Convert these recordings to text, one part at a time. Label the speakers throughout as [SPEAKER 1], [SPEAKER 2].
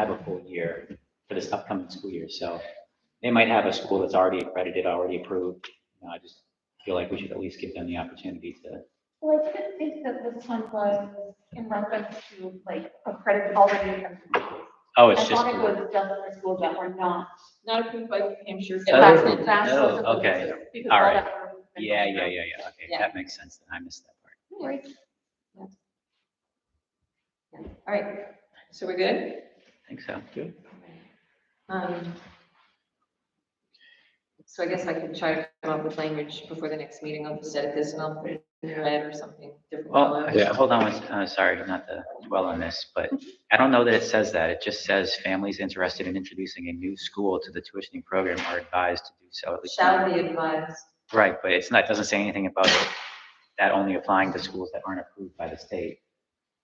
[SPEAKER 1] have a full year for this upcoming school year. So they might have a school that's already accredited, already approved. You know, I just feel like we should at least give them the opportunity to,
[SPEAKER 2] Well, I didn't think that this one was in reference to like a credit already.
[SPEAKER 1] oh,
[SPEAKER 2] I
[SPEAKER 1] it's just.
[SPEAKER 2] thought it was just for schools that were not.
[SPEAKER 3] Not approved by New Hampshire.
[SPEAKER 1] Oh,
[SPEAKER 2] That's-
[SPEAKER 1] Oh,
[SPEAKER 2] that's what
[SPEAKER 1] oh,
[SPEAKER 2] it was,
[SPEAKER 1] okay.
[SPEAKER 2] because
[SPEAKER 1] All
[SPEAKER 2] all
[SPEAKER 1] right.
[SPEAKER 2] that were-
[SPEAKER 1] Yeah, yeah, yeah, yeah. Okay,
[SPEAKER 3] Yeah.
[SPEAKER 1] that makes sense. Then I missed that part.
[SPEAKER 3] No worries. Yeah. Yeah. All right, so we're good?
[SPEAKER 1] I think so.
[SPEAKER 3] Um, So I guess I can try to come up with language before the next meeting. I'll just edit this and I'll put it in red or something different.
[SPEAKER 1] Well,
[SPEAKER 3] color.
[SPEAKER 1] I- hold on, one s- uh, sorry, not to dwell on this, but I don't know that it says that. It just says families interested in introducing a new school to the tuitioning program are advised to do so at least.
[SPEAKER 3] Shall be advised.
[SPEAKER 1] Right, but it's not, it doesn't say anything about that only applying to schools that aren't approved by the state.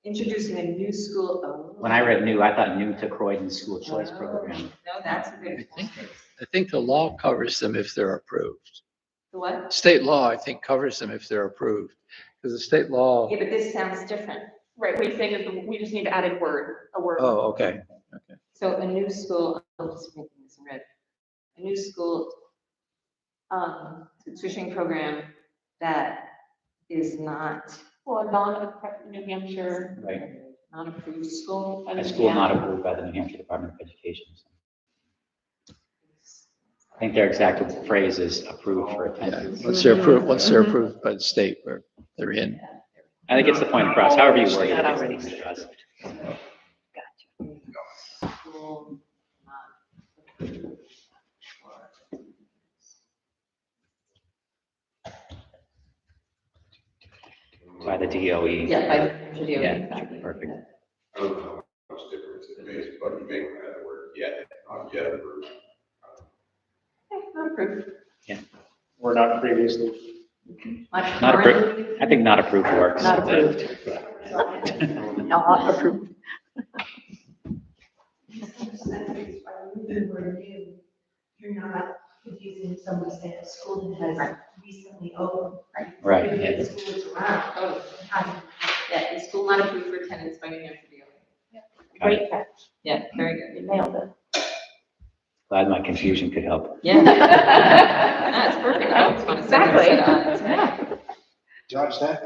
[SPEAKER 3] Introducing a new school. oh.
[SPEAKER 1] When I read new, I thought new to Croydon's school choice program.
[SPEAKER 3] No, that's a
[SPEAKER 4] I
[SPEAKER 3] good.
[SPEAKER 4] think- I think the law covers them if they're approved.
[SPEAKER 3] The what?
[SPEAKER 4] State law, I think, covers them if they're approved, because the state law,
[SPEAKER 3] Yeah, but this sounds different.
[SPEAKER 2] Right, we think is we just need to add a word, a word.
[SPEAKER 4] oh, okay.
[SPEAKER 3] So a new school, I'm just making this in red, a new school, um, tuition program that is not.
[SPEAKER 2] Well, non-accredited New Hampshire.
[SPEAKER 1] Right.
[SPEAKER 3] Not approved school.
[SPEAKER 1] A school not approved by the New Hampshire Department of Education. I think their exact phrase is approved for
[SPEAKER 4] Yeah,
[SPEAKER 1] attendance.
[SPEAKER 4] once they're approved, once they're approved by the state where they're in.
[SPEAKER 1] I think it's the point across, however you word it.
[SPEAKER 5] That
[SPEAKER 1] it's
[SPEAKER 5] already
[SPEAKER 1] the point across.
[SPEAKER 3] School not approved for-
[SPEAKER 1] By the E. DOE.
[SPEAKER 3] Yeah, by the video.
[SPEAKER 1] Yeah, exactly, perfect.
[SPEAKER 6] I don't know how much difference it makes, but it may not work yet, not yet approved.
[SPEAKER 3] Okay, Not approved.
[SPEAKER 7] were not previously.
[SPEAKER 1] Not approved.
[SPEAKER 3] currently-
[SPEAKER 1] I think not approved works.
[SPEAKER 3] Not approved.
[SPEAKER 5] Not approved.
[SPEAKER 8] If I remember where new, you're not confusing somebody saying a school that has recently opened.
[SPEAKER 1] Right,
[SPEAKER 8] Maybe
[SPEAKER 1] yeah.
[SPEAKER 8] the school is around,
[SPEAKER 3] Oh,
[SPEAKER 8] how do you
[SPEAKER 3] Yeah, the school not approved for attendance by New Hampshire DOE.
[SPEAKER 2] Great catch,
[SPEAKER 3] Yeah, very good.
[SPEAKER 2] you nailed it.
[SPEAKER 1] Glad my confusion could help.
[SPEAKER 3] Yeah. That's perfect. I was gonna say that.
[SPEAKER 5] Exactly.
[SPEAKER 7] Dodge that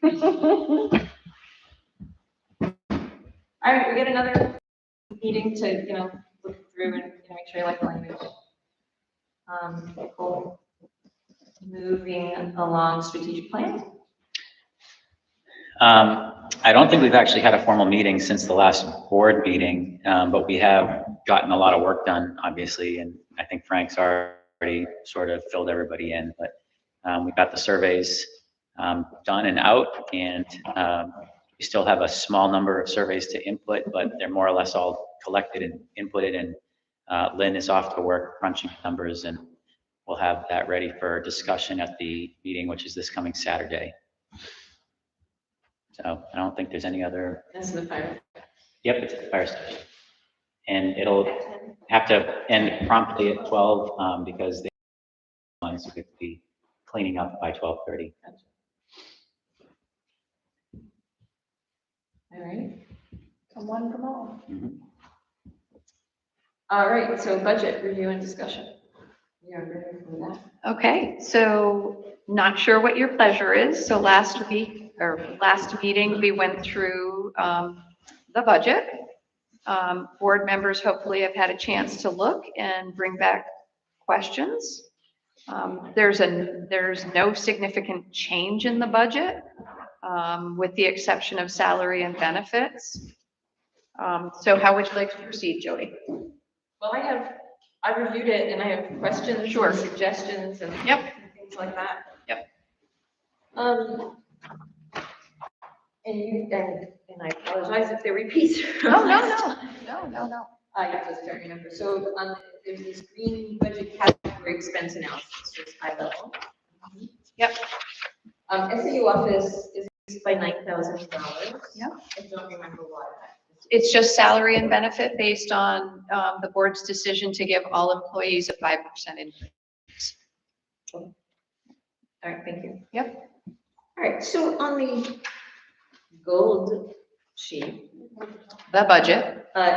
[SPEAKER 7] one.
[SPEAKER 3] All right, we get another meeting to, you know, look through and, you know, make sure you like the language. Um, cool. Moving along strategic plan.
[SPEAKER 1] Um, I don't think we've actually had a formal meeting since the last board meeting, um, but we have gotten a lot of work done, obviously, and I think Frank's already sort of filled everybody in, but, um, we got the surveys, um, done and out, and, um, we still have a small number of surveys to input, but they're more or less all collected and inputted, and, uh, Lynn is off to work crunching numbers, and we'll have that ready for discussion at the meeting, which is this coming Saturday. So I don't think there's any other,
[SPEAKER 3] This is the fire.
[SPEAKER 1] yep, it's at the fire station. And it'll have to end promptly at twelve, um, because they want us to be cleaning up by twelve thirty.
[SPEAKER 3] All right.
[SPEAKER 2] Come one from all.
[SPEAKER 1] Mm-hmm.
[SPEAKER 3] All right, so budget review and discussion. We are ready for that.
[SPEAKER 5] Okay, so not sure what your pleasure is. So last week, or last meeting, we went through um, the budget. Um, Board members hopefully have had a chance to look and bring back questions. Um, There's a, there's no significant change in the budget, um, with the exception of salary and benefits. Um, So how would you like to proceed, Jody?
[SPEAKER 3] Well, I have, I reviewed it and I have questions.
[SPEAKER 5] Sure.
[SPEAKER 3] Suggestions and.
[SPEAKER 5] Yep.
[SPEAKER 3] Things like that.
[SPEAKER 5] Yep.
[SPEAKER 3] Um. And you, and, and I apologize if they're repeats. from
[SPEAKER 5] No, no,
[SPEAKER 3] last
[SPEAKER 5] no, no, no, no.
[SPEAKER 3] I just don't remember. So, um, there's this green budget category expense analysis, just high level.
[SPEAKER 5] Yep.
[SPEAKER 3] Um, SAU office is increased by nine thousand dollars.
[SPEAKER 5] Yep.
[SPEAKER 3] I don't remember why. that is.
[SPEAKER 5] It's just salary and benefit based on um, the board's decision to give all employees a 5% increase.
[SPEAKER 3] All right, thank you.
[SPEAKER 5] Yep.
[SPEAKER 3] All right, so on the gold sheet,
[SPEAKER 5] The budget.
[SPEAKER 3] uh,